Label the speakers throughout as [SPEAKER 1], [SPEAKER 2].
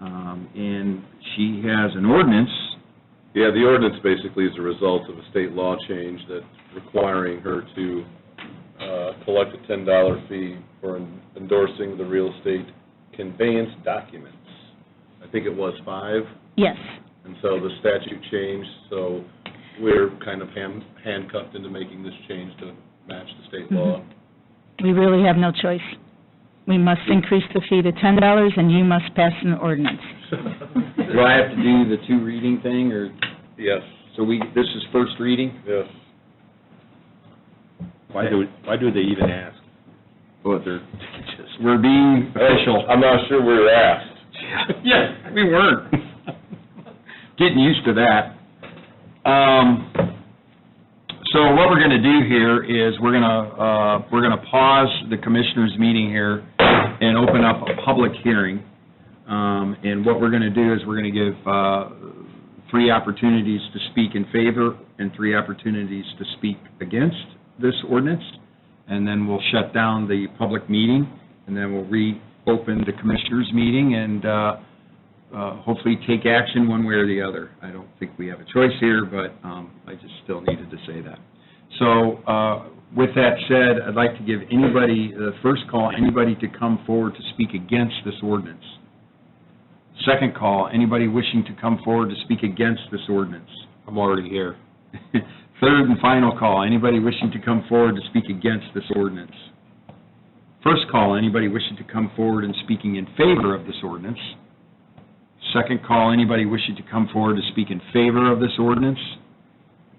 [SPEAKER 1] Um, And she has an ordinance,
[SPEAKER 2] Yeah, the ordinance basically is a result of a state law change that requiring her to uh, collect a ten dollar fee for en- endorsing the real estate conveyance documents. I think it was five,
[SPEAKER 3] Yes.
[SPEAKER 2] and so the statute changed, so we're kind of ham- handcuffed into making this change to match the state law.
[SPEAKER 3] We really have no choice. We must increase the fee to ten dollars, and you must pass an ordinance.
[SPEAKER 1] do I have to do the two reading thing, or,
[SPEAKER 2] Yes,
[SPEAKER 1] so we, this is first reading?
[SPEAKER 2] yes.
[SPEAKER 4] Why do, why do they even ask?
[SPEAKER 1] Well, they're- We're being official.
[SPEAKER 2] I'm not sure we're asked.
[SPEAKER 1] Yeah, we weren't. Getting used to that. Um, So what we're going to do here is, we're going to, uh, we're going to pause the commissioners' meeting here and open up a public hearing. Um, And what we're going to do is, we're going to give uh, three opportunities to speak in favor and three opportunities to speak against this ordinance, and then we'll shut down the public meeting, and then we'll reopen the commissioners' meeting and uh, uh, hopefully take action one way or the other. I don't think we have a choice here, but um, I just still needed to say that. So uh, with that said, I'd like to give anybody, the first call, anybody to come forward to speak against this ordinance. Second call, anybody wishing to come forward to speak against this ordinance. I'm already here. Third and final call, anybody wishing to come forward to speak against this ordinance. First call, anybody wishing to come forward and speaking in favor of this ordinance. Second call, anybody wishing to come forward to speak in favor of this ordinance.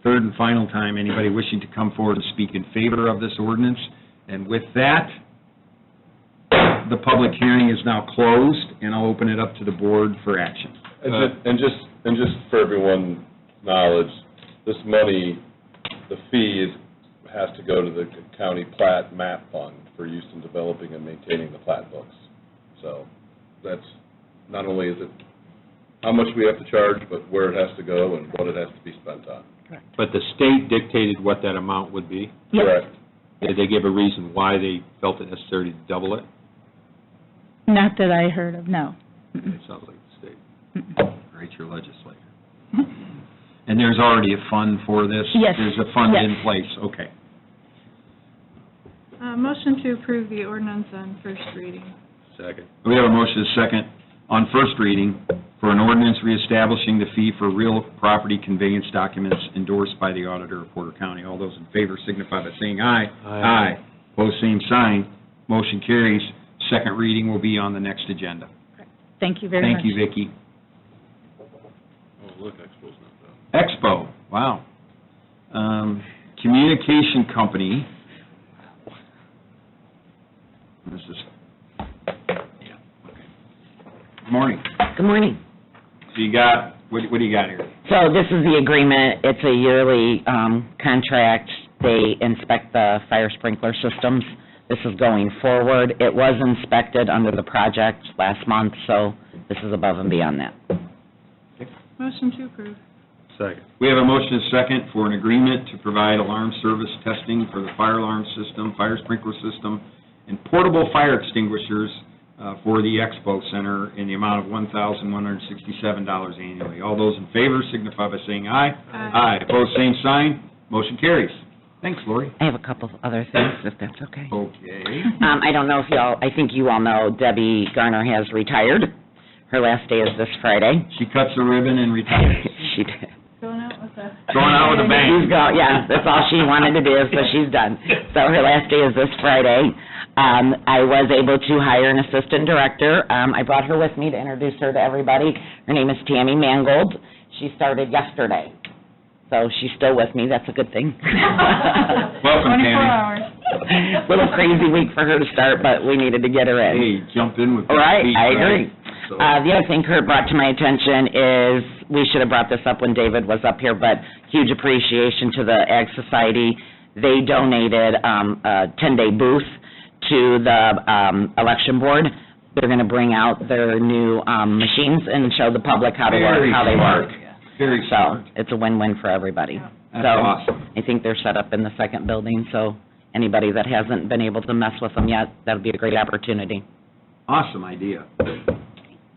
[SPEAKER 1] Third and final time, anybody wishing to come forward to speak in favor of this ordinance. And with that, the public hearing is now closed, and I'll open it up to the board for action. Uh,
[SPEAKER 2] And ju- and just, and just for everyone's knowledge, this money, the fee is, has to go to the county plat map fund for use in developing and maintaining the plat books. So that's, not only is it how much we have to charge, but where it has to go and what it has to be spent on.
[SPEAKER 4] But the state dictated what that amount would be?
[SPEAKER 3] Yes.
[SPEAKER 2] Correct.
[SPEAKER 4] Did they give a reason why they felt it necessary to double it?
[SPEAKER 3] Not that I heard of, no.
[SPEAKER 4] It sounds like the state.
[SPEAKER 1] Right, your legislator. And there's already a fund for this?
[SPEAKER 3] Yes,
[SPEAKER 1] There's a fund
[SPEAKER 3] yes.
[SPEAKER 1] in place, okay.
[SPEAKER 5] Uh, Motion to approve the ordinance on first reading.
[SPEAKER 4] Second.
[SPEAKER 1] We have a motion, a second, on first reading for an ordinance reestablishing the fee for real property conveyance documents endorsed by the auditor of Porter County. All those in favor signify by saying aye.
[SPEAKER 4] Aye.
[SPEAKER 1] Aye. Pose same sign. Motion carries. Second reading will be on the next agenda.
[SPEAKER 3] Thank you very much.
[SPEAKER 1] Thank you, Vicki.
[SPEAKER 2] Oh, look, Expo's not done.
[SPEAKER 1] Expo, wow. Um, Communication Company. This is, yeah, okay. Morning.
[SPEAKER 6] Good morning.
[SPEAKER 1] So you got, what what do you got here?
[SPEAKER 6] So this is the agreement, it's a yearly um, contract, they inspect the fire sprinkler systems. This is going forward, it was inspected under the project last month, so this is above and beyond that.
[SPEAKER 5] Motion to approve.
[SPEAKER 4] Second.
[SPEAKER 1] We have a motion and second for an agreement to provide alarm service testing for the fire alarm system, fire sprinkler system, and portable fire extinguishers uh, for the Expo Center in the amount of $1,167 annually. All those in favor signify by saying aye.
[SPEAKER 5] Aye.
[SPEAKER 1] Aye, opposed, same sign, motion carries. Thanks, Lori.
[SPEAKER 6] I have a couple of other things, if that's okay.
[SPEAKER 1] Okay.
[SPEAKER 6] Um, I don't know if y'all, I think you all know Debbie Garner has retired. Her last day is this Friday.
[SPEAKER 1] She cuts the ribbon and retires.
[SPEAKER 6] She did.
[SPEAKER 5] Going out with a...
[SPEAKER 1] Going out with a bang.
[SPEAKER 6] She's go, yeah, that's all she wanted to do, so she's done. So her last day is this Friday. Um, I was able to hire an assistant director. Um, I brought her with me to introduce her to everybody. Her name is Tammy Mangold. She started yesterday. So she's still with me, that's a good thing.
[SPEAKER 1] Welcome,
[SPEAKER 5] 24
[SPEAKER 1] Tammy.
[SPEAKER 5] hours.
[SPEAKER 6] Little crazy week for her to start, but we needed to get her in.
[SPEAKER 1] Hey, jump in with the
[SPEAKER 6] Right,
[SPEAKER 1] speech,
[SPEAKER 6] I agree.
[SPEAKER 1] So-
[SPEAKER 6] Uh, the other thing Kurt brought to my attention is, we should have brought this up when David was up here, but huge appreciation to the Ag Society. They donated, um, a ten-day booth to the, um, election board. They're gonna bring out their new, um, machines and show the public how to work,
[SPEAKER 1] Very
[SPEAKER 6] how they
[SPEAKER 1] smart.
[SPEAKER 6] work.
[SPEAKER 1] Very
[SPEAKER 6] So,
[SPEAKER 1] smart.
[SPEAKER 6] it's a win-win for everybody.
[SPEAKER 1] That's
[SPEAKER 6] So,
[SPEAKER 1] awesome.
[SPEAKER 6] I think they're set up in the second building, so anybody that hasn't been able to mess with them yet, that'll be a great opportunity.
[SPEAKER 1] Awesome idea.